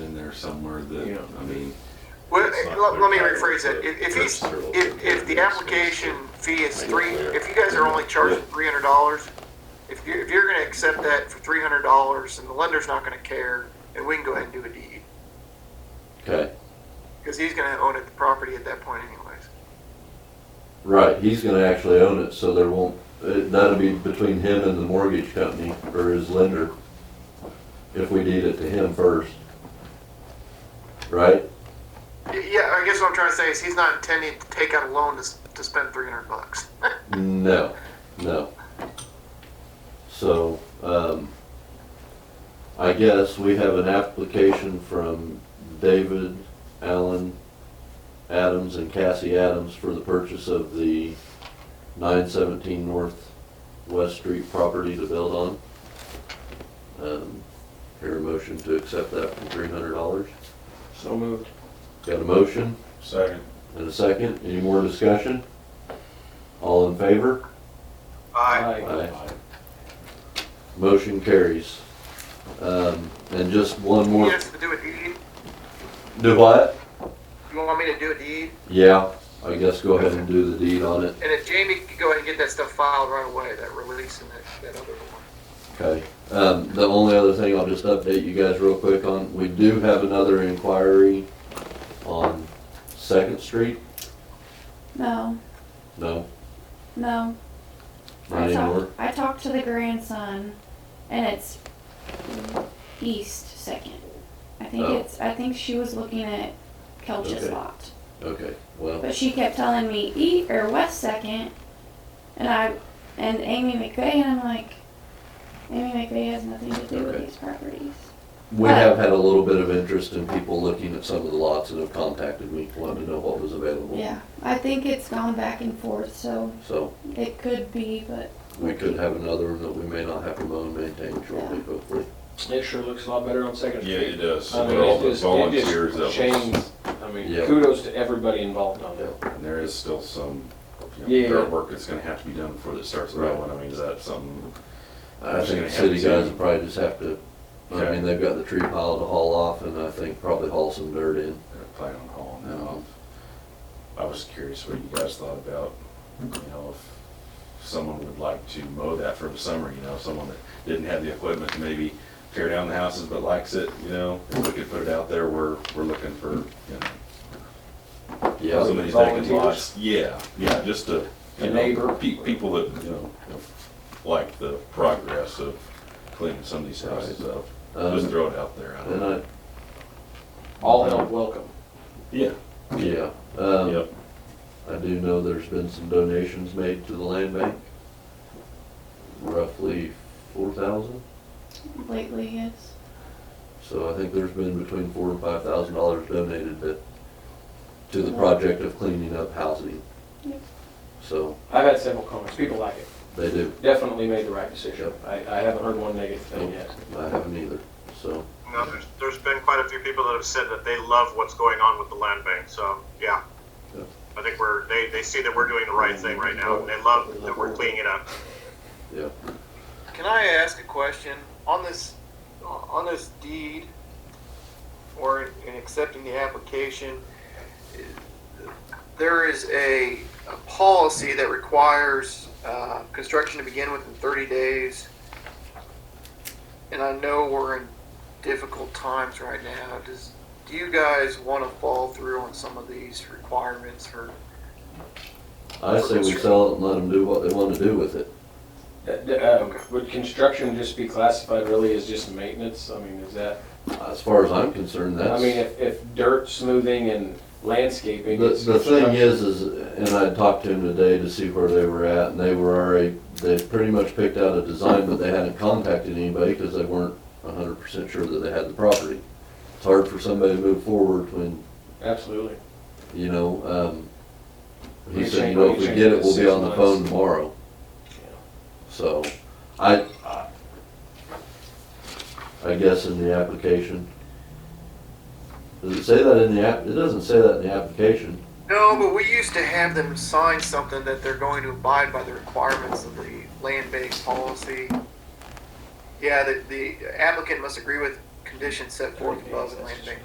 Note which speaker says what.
Speaker 1: there somewhere
Speaker 2: Yeah.
Speaker 1: that, I mean,
Speaker 3: Well,
Speaker 1: It's not
Speaker 3: let, let me
Speaker 1: clear.
Speaker 3: rephrase it. If, if he's,
Speaker 1: That's true.
Speaker 3: if, if the application fee is
Speaker 1: Make it
Speaker 3: three,
Speaker 1: clear.
Speaker 3: if you guys are only charging
Speaker 1: Yeah.
Speaker 3: three hundred dollars, if you, if you're gonna accept that for three hundred dollars and the lender's not gonna care, then we can go ahead and do a deed.
Speaker 4: Okay,
Speaker 3: Cause he's gonna own it, the property at that point anyways.
Speaker 4: right, he's gonna actually own it, so there won't, uh, that'll be between him and the mortgage company or his lender. If we deed it to him first. Right?
Speaker 3: Y- Yeah, I guess what I'm trying to say is he's not intending to take out a loan to, s- to spend three hundred bucks.
Speaker 4: No, no. So, um, I guess we have an application from David, Allen, Adams, and Cassie Adams for the purchase of the nine seventeen North West Street property to build on. Um, Hear a motion to accept that for three hundred dollars.
Speaker 2: So moved.
Speaker 4: Got a motion
Speaker 1: second,
Speaker 4: and a second? Any more discussion? All in favor?
Speaker 3: Aye.
Speaker 4: Aye. Motion carries. Um, and just one
Speaker 3: You
Speaker 4: more,
Speaker 3: want us to do a deed?
Speaker 4: do what?
Speaker 3: You want me to do a deed?
Speaker 4: Yeah, I guess go ahead and do the deed on it,
Speaker 3: And if Jamie could go ahead and get that stuff filed right away, that release and that, that other one.
Speaker 4: okay? Um, the only other thing I'll just update you guys real quick on, we do have another inquiry on Second Street?
Speaker 5: No,
Speaker 4: No,
Speaker 5: no.
Speaker 4: not
Speaker 5: I,
Speaker 4: anymore?
Speaker 5: talked, I talked to the grandson, and it's east second. I think
Speaker 4: Oh.
Speaker 5: it's. I think she was looking at Kelch's
Speaker 4: Okay.
Speaker 5: lot,
Speaker 4: Okay, well,
Speaker 5: but she kept telling me east or west second, and I and Amy McVeigh, and I'm like, Amy McVeigh has nothing to do
Speaker 4: Okay.
Speaker 5: with these properties.
Speaker 4: we have had a little bit of interest in people looking at some of the lots and have contacted me, wanting to know what was available.
Speaker 5: Yeah, I think it's gone back and forth, so
Speaker 4: So
Speaker 5: it could be, but
Speaker 4: we could have another one that we may not have to mow and maintain shortly, hopefully.
Speaker 2: It sure looks a lot better on Second
Speaker 1: yeah,
Speaker 2: Street.
Speaker 1: it does,
Speaker 2: I
Speaker 1: with
Speaker 2: mean,
Speaker 1: all
Speaker 2: it
Speaker 1: the
Speaker 2: just, it
Speaker 1: volunteers
Speaker 2: just
Speaker 1: of us,
Speaker 2: changed, I mean,
Speaker 4: Yeah.
Speaker 2: kudos to everybody involved on that.
Speaker 1: and there is still some, you
Speaker 2: Yeah.
Speaker 1: know, dirt work that's gonna have to be done before this starts
Speaker 4: Right.
Speaker 1: rolling, I mean, is that something?
Speaker 4: I
Speaker 1: That's
Speaker 4: think
Speaker 1: gonna
Speaker 4: city
Speaker 1: happen
Speaker 4: guys
Speaker 1: soon.
Speaker 4: will probably just have to, I
Speaker 1: Okay.
Speaker 4: mean, they've got the tree pile to haul off and I think probably haul some dirt in.
Speaker 1: They're planning on hauling that off. I was curious what you guys thought about, you know, if someone would like to mow that for the summer, you know, someone that didn't have the equipment to maybe tear down the houses but likes it, you know, if we could put it out there, we're, we're looking for, you know,
Speaker 4: Yeah,
Speaker 1: somebody that can
Speaker 2: volunteers?
Speaker 1: watch. Yeah, yeah, just to,
Speaker 2: A
Speaker 1: you know,
Speaker 2: neighbor?
Speaker 1: pe- people that, you know, like the progress of cleaning some of these houses up. Just
Speaker 4: um,
Speaker 1: throw it out there. I don't
Speaker 4: and
Speaker 1: know.
Speaker 4: I,
Speaker 2: All help welcome.
Speaker 1: Yeah,
Speaker 4: yeah, um,
Speaker 1: yep,
Speaker 4: I do know there's been some donations made to the land bank. Roughly four thousand,
Speaker 5: lately it's
Speaker 4: so I think there's been between four and five thousand dollars donated to, to the project of cleaning up housing.
Speaker 5: Yep.
Speaker 4: So,
Speaker 2: I've had several comments, people like it,
Speaker 4: they do,
Speaker 2: definitely made the right decision. I, I haven't heard one negative thing yet.
Speaker 4: I haven't either, so,
Speaker 6: No, there's, there's been quite a few people that have said that they love what's going on with the land bank, so, yeah.
Speaker 4: Yeah.
Speaker 6: I think we're, they, they see that we're doing the right thing right now, and they love that we're cleaning it up.
Speaker 4: yeah.
Speaker 3: Can I ask a question on this, uh, on this deed, or in accepting the application? There is a, a policy that requires uh, construction to begin within 30 days, and I know we're in difficult times right now. Does do you guys want to fall through on some of these requirements for?
Speaker 4: I say we sell it and let them do what they want to do with it.
Speaker 2: Uh, d- um, Would construction just be classified really as just maintenance? I mean, is that,
Speaker 4: As far as I'm concerned,
Speaker 2: I
Speaker 4: that's,
Speaker 2: mean,
Speaker 4: the,
Speaker 2: if, if dirt smoothing and landscaping is
Speaker 4: the thing
Speaker 2: construction-
Speaker 4: is, is, and I talked to him today to see where they were at, and they were already, they pretty much picked out a design, but they hadn't contacted anybody because they weren't a hundred percent sure that they had the property. It's hard for somebody to move forward when,
Speaker 2: Absolutely.
Speaker 4: you know, um, he
Speaker 2: You
Speaker 4: said, you
Speaker 2: change-
Speaker 4: know,
Speaker 2: you
Speaker 4: if we
Speaker 2: change
Speaker 4: get
Speaker 2: it
Speaker 4: it, we'll be
Speaker 2: six
Speaker 4: on the
Speaker 2: months.
Speaker 4: phone tomorrow. So, I, I- I guess in the application. Does it say that in the app, it doesn't say that in the application.
Speaker 3: No, but we used to have them sign something that they're going to abide by the requirements of the land-based policy. Yeah, the, the applicant must agree with conditions set forth above in land-based